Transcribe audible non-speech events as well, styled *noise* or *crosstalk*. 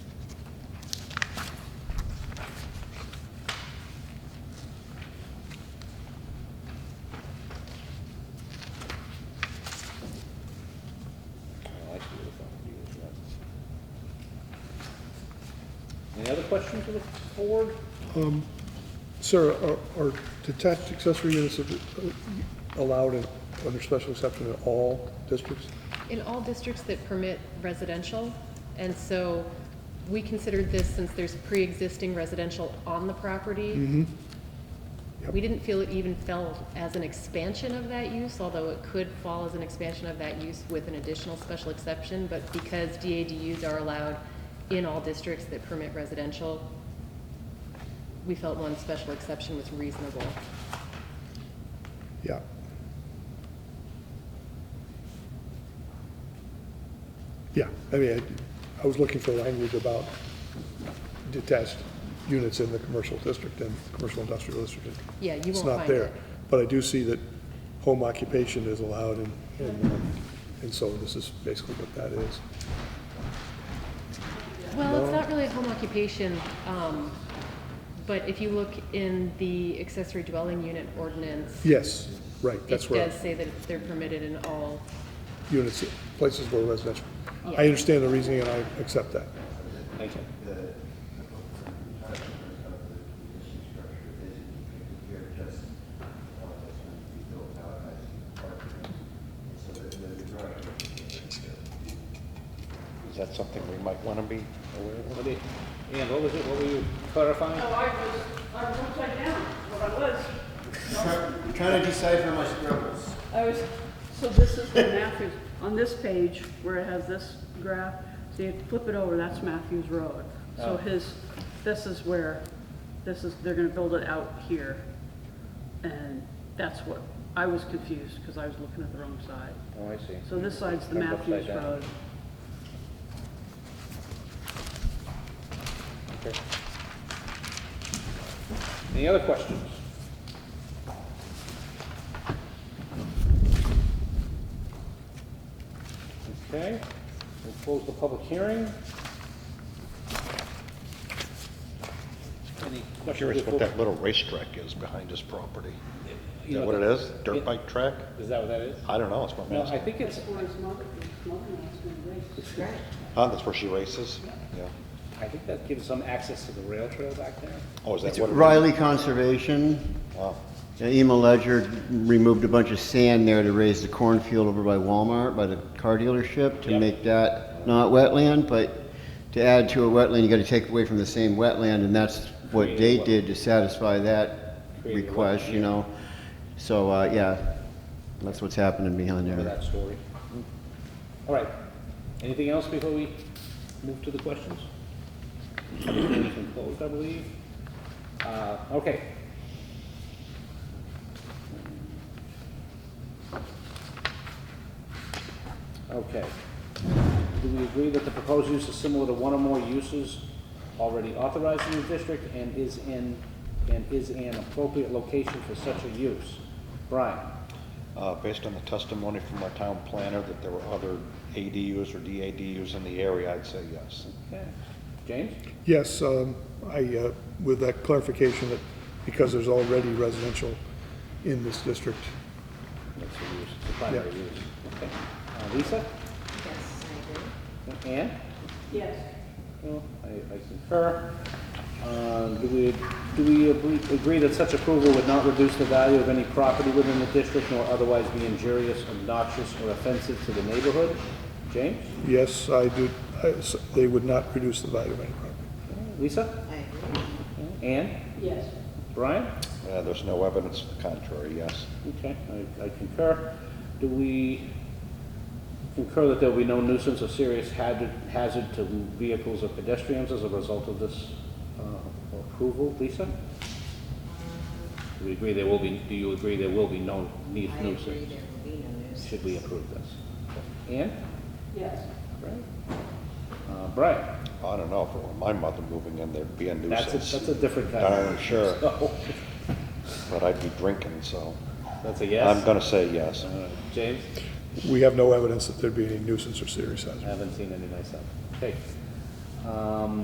Any other questions of the board? Sarah, are- are detached accessory units uh, allowed in- under special exception in all districts? In all districts that permit residential, and so we considered this since there's pre-existing residential on the property. Yep. We didn't feel it even fell as an expansion of that use, although it could fall as an expansion of that use with an additional special exception, but because DADUs are allowed in all districts that permit residential, we felt one special exception was reasonable. Yeah. Yeah, I mean, I- I was looking for language about detached units in the commercial district and commercial industrial district. Yeah, you It's won't not find there. it. But I do see that home occupation is allowed and, and so this is basically what that is. Well, it's not really a home occupation, um, but if you look in the accessory dwelling unit ordinance, Yes, right, it that's where. does say that they're permitted in all, units, places where residential. Yeah. I understand the reasoning and I accept that. Thank you. uh, Is that something we might want to be aware of? What did- Ann, what was it, what were you clarifying? No, I was, I was upside down, what I was. Trying to decipher my scribbles. I was, so this is where Matthews, on this page where it has this graph, so you flip it over, that's Matthews Road. So his, this is where, this is, they're gonna build it out here. And that's what, I was confused because I was looking at the wrong side. Oh, I see. So this side's the I'm upside Matthews down. Road. Any other questions? Okay, we'll close the public hearing. Any I'm questions? curious before- what that little racetrack is behind his property. Is You know, that what it is? Yeah. Dirt bike track? Is that what that is? I don't know, it's what I'm No, I asking. think it's, Where his mother, his mother-in-law's gonna race. Oh, that's where she races? Yeah. I think that gives some access to the rail trail back there. Oh, is that It's what? it is? Riley Conservation. Oh, Uh, Ema Ledger removed a bunch of sand there to raise the cornfield over by Walmart, by the car dealership, to Yep. make that not wetland, but to add to a wetland, you gotta take away from the same wetland, and that's what they Create a wet- did to satisfy that Create a request, you know? So, uh, yeah, that's what's happening behind Remember there. that story? All right. Anything else before we move to the questions? Public hearing's been closed, I believe. Uh, okay. Okay. Do we agree that the proposed use is similar to one or more uses already authorized in the district and is in, and is an appropriate location for such a use? Brian? Uh, Based on the testimony from our town planner that there were other ADUs or DADUs in the area, I'd say yes. Okay. James? Yes, um, I, uh, with that clarification that because there's already residential in this district, That's the use, the primary Yeah. use. Okay. Uh, Lisa? Yes, I agree. Ann? Yes. Well, I I concur. Uh, Do we, do we agree- agree that such approval would not reduce the value of any property within the district nor otherwise be injurious, obnoxious, or offensive to the neighborhood? James? yes, I do, I s they would not reduce the value of any property. Lisa? I agree. Ann? Yes. Brian? Uh, There's no evidence to the contrary, yes. Okay, I I concur. Do we concur that there will be no nuisance or serious hazard hazard to vehicles or pedestrians as a result of this uh, approval? Lisa? Do we agree there will be, do you agree there will be no need I agree nuisance? there will be no nuisance. Should we approve this? Ann? Yes. Right. Uh, Brian? I don't know, if it were my mother moving in, there'd be a That's, a- that's nuisance. a different kind Darn of... Uh, sure, *laughs* So, but I'd be drinking, so That's a I'm yes? gonna say yes. Uh, James? We have no evidence that there'd be any nuisance or serious hazard. I haven't seen any myself. Okay. Um,